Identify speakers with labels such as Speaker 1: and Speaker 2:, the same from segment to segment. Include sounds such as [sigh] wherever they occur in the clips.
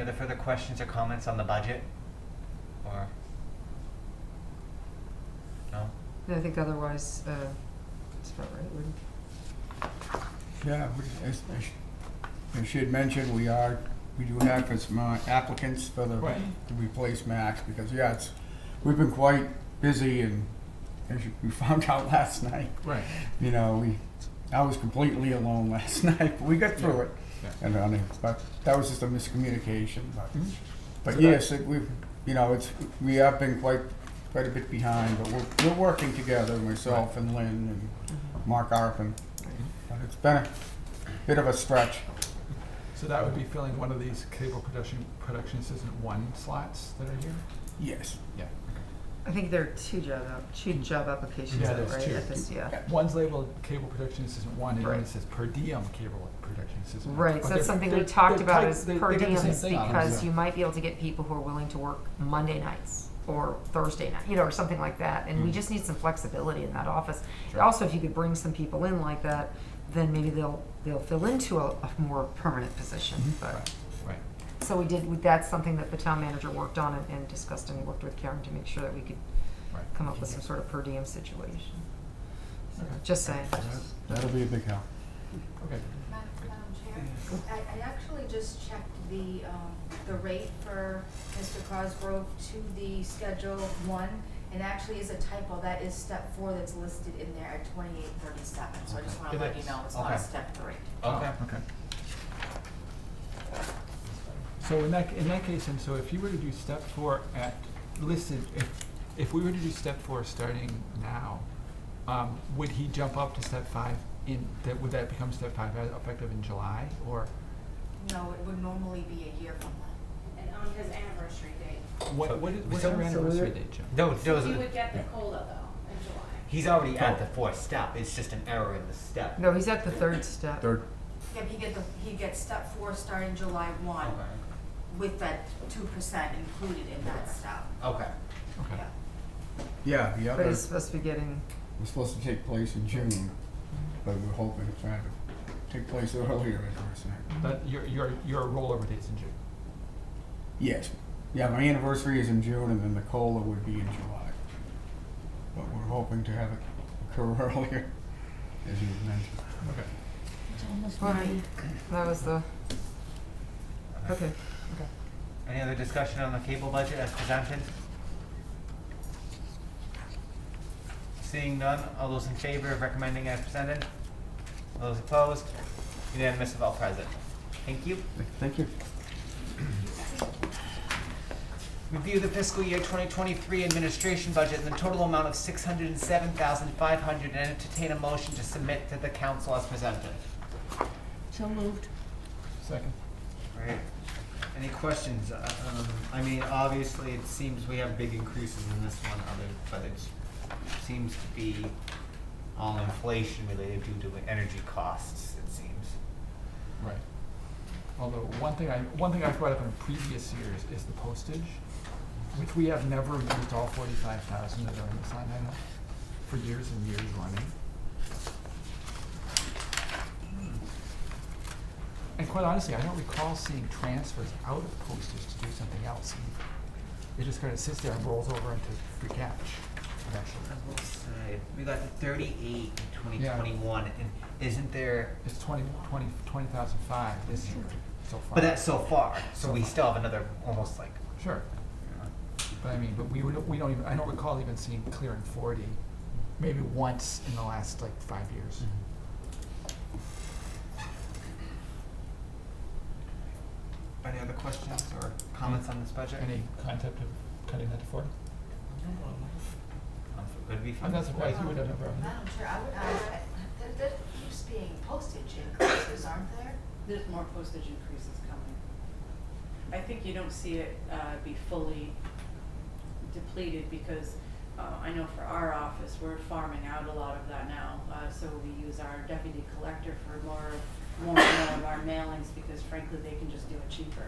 Speaker 1: other further questions or comments on the budget? Or? No?
Speaker 2: I think otherwise, uh, that's about right, wouldn't
Speaker 3: Yeah, we- as, as she- as she had mentioned, we are, we do have some uh, applicants for the,
Speaker 1: Right.
Speaker 3: to replace Max, because, yeah, it's, we've been quite busy, and as you- we [laughs] found out last night,
Speaker 4: Right.
Speaker 3: you know, we, I was completely alone [laughs] last night, but we got through it.
Speaker 4: Yeah, yeah.
Speaker 3: And,
Speaker 4: Mm-hmm.
Speaker 3: uh, but that was just a miscommunication, but,
Speaker 4: So
Speaker 3: but
Speaker 4: that-
Speaker 3: yes, it- we've, you know, it's, we have been quite, quite a bit behind, but we're, we're working together, myself and Lynn and Mark Arpin. But it's been a bit of a stretch.
Speaker 4: So that would be filling one of these cable production, production assistant one slots that are here?
Speaker 3: Yes.
Speaker 4: Yeah.
Speaker 2: I think there are two job, app- two job applications,
Speaker 4: Yeah,
Speaker 2: out,
Speaker 4: there's
Speaker 2: right,
Speaker 4: two.
Speaker 2: at this, yeah.
Speaker 4: One's labeled cable production assistant one, and one
Speaker 2: Right.
Speaker 4: says per diem cable production assistant.
Speaker 2: Right, so
Speaker 4: But
Speaker 2: that's
Speaker 4: they're-
Speaker 2: something we
Speaker 4: they're-
Speaker 2: talked
Speaker 4: they're
Speaker 2: about
Speaker 4: type-
Speaker 2: is
Speaker 4: they-
Speaker 2: per
Speaker 4: they get the same
Speaker 2: diems
Speaker 4: thing on them.
Speaker 2: because
Speaker 3: Yeah.
Speaker 2: you might be able to get people who are willing to work Monday nights or Thursday night, you know, or something like that. And we
Speaker 4: Mm.
Speaker 2: just need some flexibility in that office.
Speaker 4: Sure.
Speaker 2: Also, if you could bring some people in like that, then maybe they'll they'll fill into a, a more permanent position. But
Speaker 4: Mm-hmm. Right, right.
Speaker 2: so we did. That's something that the town manager worked on and, and discussed and worked with Karen to make sure that we could
Speaker 4: Right.
Speaker 2: come up with some sort of per diem situation. So,
Speaker 4: Okay.
Speaker 2: Just saying.
Speaker 3: That'll be a big help.
Speaker 4: Okay.
Speaker 5: Ma- Madam Chair, I, I actually just checked the, um, the rate for Mr. Cosgrove to the Schedule One, and actually is a typo, that is step four that's listed in there at twenty-eight thirty-seven, so I just wanna
Speaker 1: Okay.
Speaker 5: let you know, it's not
Speaker 1: Okay.
Speaker 5: a step three.
Speaker 1: Okay.
Speaker 4: Oh, Okay. So in that, in that case, and so if you were to do step four at, listed, if, if we were to do step four starting now, um, would he jump up to step five in, that, would that become step five as effective in July, or
Speaker 5: No, it would normally be a year from now.
Speaker 6: and on his anniversary date.
Speaker 4: what,
Speaker 1: So-
Speaker 4: what is, what's
Speaker 1: so- so
Speaker 4: our anniversary
Speaker 3: we're-
Speaker 4: date, Jim?
Speaker 1: No,
Speaker 6: He
Speaker 1: no,
Speaker 6: would get the COLA though in July.
Speaker 1: he's already at
Speaker 4: Oh.
Speaker 1: the fourth step, it's just an error in the step.
Speaker 2: No, he's at the third step.
Speaker 3: Third,
Speaker 5: Yeah, but he get the, he gets step four starting July one,
Speaker 1: Okay,
Speaker 5: with that two percent included in that step,
Speaker 1: okay,
Speaker 4: Okay,
Speaker 3: yeah,
Speaker 5: yeah.
Speaker 3: the
Speaker 2: But
Speaker 3: other
Speaker 2: he's
Speaker 3: was
Speaker 2: supposed to be getting.
Speaker 3: supposed to take place in June, but we're hoping to try to take place earlier in person.
Speaker 4: that, your, your, your rollover date's in June.
Speaker 3: Yes. Yeah, my anniversary is in June and then the COLA would be in July. But we're hoping to have it occur [laughs] earlier, as you mentioned.
Speaker 4: Okay.
Speaker 2: Right. That was the. Okay.
Speaker 1: Any other discussion on the cable budget as presented? Seeing none, all those in favor of recommending as presented? All Those opposed? Unanimous of all present. Thank you.
Speaker 3: Thank you.
Speaker 1: Review the fiscal year 2023 administration budget in the total amount of 607500 and entertain a motion to submit to the council as presented.
Speaker 4: Second.
Speaker 1: Right. Any questions? Uh, um, I mean, obviously, it seems we have big increases in this one, other, but it seems to be all inflation related due to energy costs, it seems.
Speaker 4: Right. Although, one thing I, one thing I brought up in previous years is the postage, which we have never used all forty-five thousand that are in this line item for years and years running. And quite honestly, I don't recall seeing transfers out of postage to do something else. either. It just kind of sits there and rolls over into free cash eventually.
Speaker 1: will say, we got the thirty-eight in
Speaker 4: Yeah.
Speaker 1: 2021, and isn't there,
Speaker 4: It's twenty, twenty, twenty thousand five this year so far.
Speaker 1: but that's so far, so
Speaker 4: So
Speaker 1: we
Speaker 4: far.
Speaker 1: still have another, almost like,
Speaker 4: Sure.
Speaker 1: you know,
Speaker 4: But I mean, but we would, we don't even, I don't recall even seeing clearing forty, maybe once in the last like five years.
Speaker 1: Any other questions or comments on this budget?
Speaker 4: Any Mm-hmm. concept of cutting that to forty?
Speaker 1: Um, Could be
Speaker 4: I'm
Speaker 1: fun.
Speaker 4: not surprised you would have never.
Speaker 5: Madam Chair, I would uh, ask, that- that, that keeps being postage increases, aren't there?
Speaker 7: There's more postage increases coming. I think you don't see it uh, be fully depleted because uh, I know for our office, we're farming out a lot of that now. Uh, So we use our deputy collector for more, more and more of our mailings because frankly, they can just do it cheaper.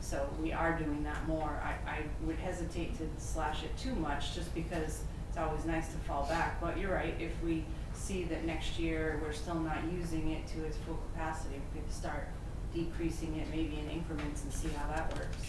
Speaker 7: So we are doing that more. I, I would hesitate to slash it too much just because it's always nice to fall back. But you're right, if we see that next year we're still not using it to its full capacity, we could start decreasing it maybe in increments and see how that works.